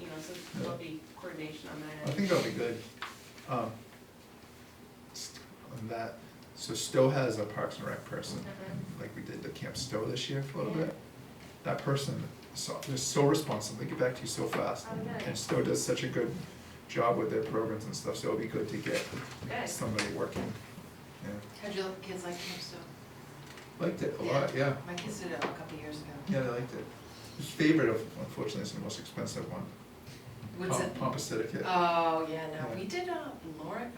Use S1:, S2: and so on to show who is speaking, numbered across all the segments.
S1: you know, so there'll be coordination on that.
S2: I think that'll be good. Um, st- On that, so Stowe has a Parks and Rec person,
S1: Mhm.
S2: like we did the Camp Stowe this year for a little
S1: Yeah.
S2: bit. That person, so, they're so responsive, they get back to you so fast.
S1: Oh, nice.
S2: And Stowe does such a good job with their programs and stuff, so it'll be good to get
S1: Good.
S2: somebody working. Yeah,
S3: How'd your kids like Camp Stowe?
S2: Liked it a lot, yeah,
S3: My kids did it a couple of years ago.
S2: yeah, they liked it. His favorite, of- unfortunately, is the most expensive one.
S3: What's it?
S2: Pomp Aesthetic, yeah,
S3: Oh, yeah,
S2: Yeah.
S3: no, we did, uh, Lawrence,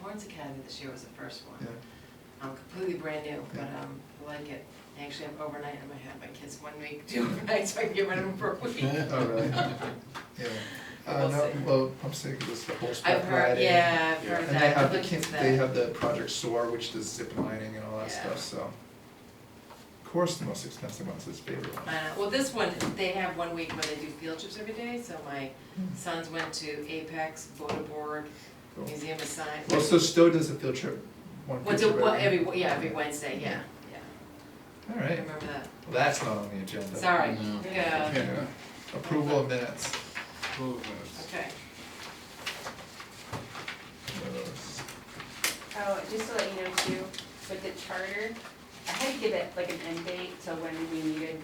S3: Lawrence Academy this year was the first one.
S2: yeah.
S3: Um, completely brand new, but,
S2: Yeah.
S3: um, I like it. I Actually, I'm overnight, I'm gonna have my kids one week, do overnight, so I can get rid of them for a week.
S2: Oh, really? Yeah. Uh,
S3: We'll
S2: no,
S3: see.
S2: well, I'm saying this, the
S3: I've
S2: horseback
S3: heard,
S2: riding.
S3: yeah, I've heard
S2: And they
S3: that,
S2: have
S3: I'm
S2: the,
S3: looking
S2: kin-
S3: for
S2: they
S3: that.
S2: have the Project Soar, which does zip lining and all that
S3: Yeah.
S2: stuff, so. Of course, the most expensive one's his favorite one.
S3: Uh, well, this one, they have one week where they do field trips every day, so my sons went to Apex, Bodeborg,
S2: Hmm. Cool.
S3: Museum of Science.
S2: Well, so Stowe does a field trip, one field
S3: What's it,
S2: trip
S3: what,
S2: every.
S3: every, yeah, every Wednesday, yeah, yeah,
S2: All
S3: I
S2: right, well,
S3: remember that,
S2: that's not on the agenda.
S3: sorry,
S4: No.
S3: yeah,
S4: Uh,
S2: Yeah. Approval of minutes.
S4: Twelve minutes.
S3: okay.
S2: Those.
S1: Oh, just to let you know too, with the charter, I had to give it like an end date, so when we needed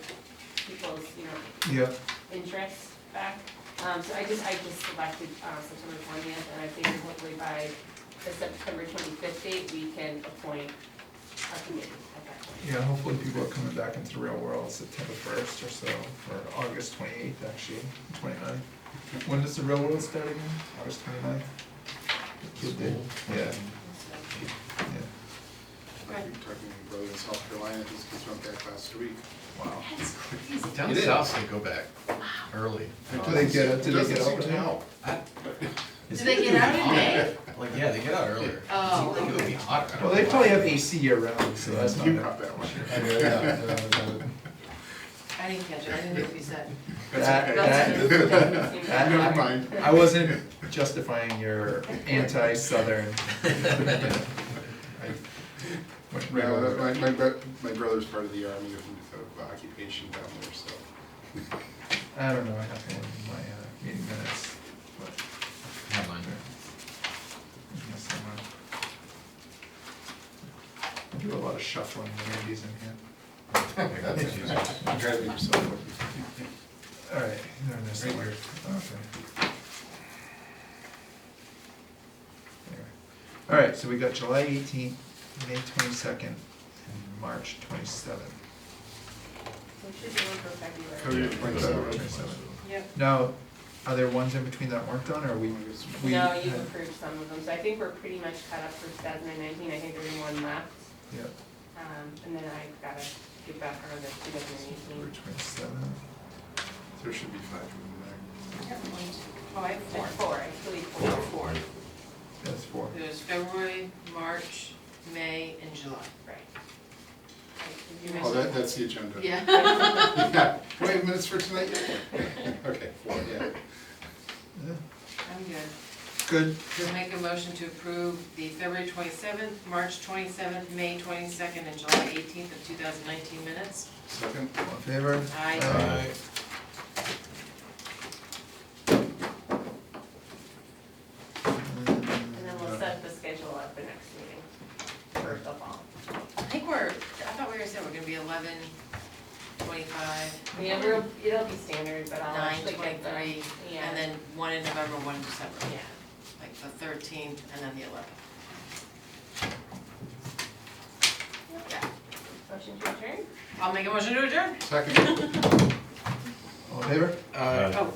S1: people's, you know,
S2: Yeah,
S1: interest back. Um, so I just, I just selected, uh, September twentieth, and I think hopefully by the September twenty-fifth date, we can appoint a committee at that point.
S2: yeah, hopefully people are coming back into the real world September first or so, or August twenty-eighth, actually, 29th. When does the real world start again? August twenty-ninth? Good day. Yeah, yeah,
S4: I keep talking to my brother in South Carolina, his kids went back last week.
S2: wow.
S3: That's crazy.
S5: Down
S2: It is.
S5: south, they go back early.
S2: Do they get,
S4: It
S2: do they
S4: doesn't
S2: get
S4: seem
S2: over
S4: to
S2: now?
S4: help.
S3: Do they get out in May?
S5: Like, yeah, they get out earlier.
S3: Oh.
S5: It seems like it would be hotter. I don't
S2: Well, they
S5: know
S2: probably
S5: why.
S2: have AC year round, so that's not.
S4: You caught that one.
S5: Yeah, yeah, yeah.
S3: I didn't catch it, I didn't know what you said.
S2: That-
S3: That's
S2: that-
S3: okay.
S2: that-
S4: Never mind.
S2: I wasn't justifying your anti-southern. I went right
S4: No,
S2: over
S4: that-
S2: it.
S4: my, my, bro- my brother's part of the army of of occupation down there, so.
S2: I don't know, I have one in my uh, meeting minutes, but.
S5: Never mind.
S2: in here somewhere. I do a lot of shuffling when Andy's in here.
S5: Okay, that's confusing.
S4: I'm trying to make yourself look.
S2: Alright, they're in there somewhere. Okay. Anyway. Alright, so we got July eighteenth, May twenty-second, and March twenty-seventh.
S1: We should do one for February.
S4: Cody,
S2: Oh,
S4: point that out.
S3: Yep.
S2: Now, are there ones in between that weren't done, or we? we
S1: No, you've
S2: had-
S1: approved some of them, so I think we're pretty much caught up for two thousand and nineteen, I think there's one left.
S2: Yeah,
S1: Um, and then I gotta get back on the two thousand and
S2: September
S1: eighteen.
S2: twenty-seventh.
S4: There should be five in
S3: Oh, I have four.
S1: There's four, I believe
S3: No,
S1: four.
S3: four.
S2: That's four.
S3: There's February, March, May, and July.
S1: Right.
S3: You
S4: there. Oh, that, that's the agenda.
S3: Yeah.
S4: Yeah. Wait, minutes for tonight? yet? Okay, four, yeah.
S2: Yeah.
S3: I'm good.
S2: Good.
S3: We'll make a motion to approve the February twenty-seventh, March twenty-seventh, May twenty-second, and July eighteenth of two thousand nineteen minutes.
S4: Second,
S2: All in favor?
S3: Aye.
S5: Alright.
S1: And then we'll set the schedule up for next meeting, for the fall.
S3: I think we're, I thought we were saying we're gonna be eleven twenty-five,
S1: Yeah, we're, it'll be standard, but I'll
S3: nine
S1: actually get the.
S3: twenty-three,
S1: yeah,
S3: and then one in November, one in December.
S1: Yeah,
S3: Like the thirteenth and then the eleventh. Yeah.
S1: motion to adjourn?
S3: I'll make a motion to adjourn.
S4: second.
S5: uh,
S2: All in favor?
S3: Oh,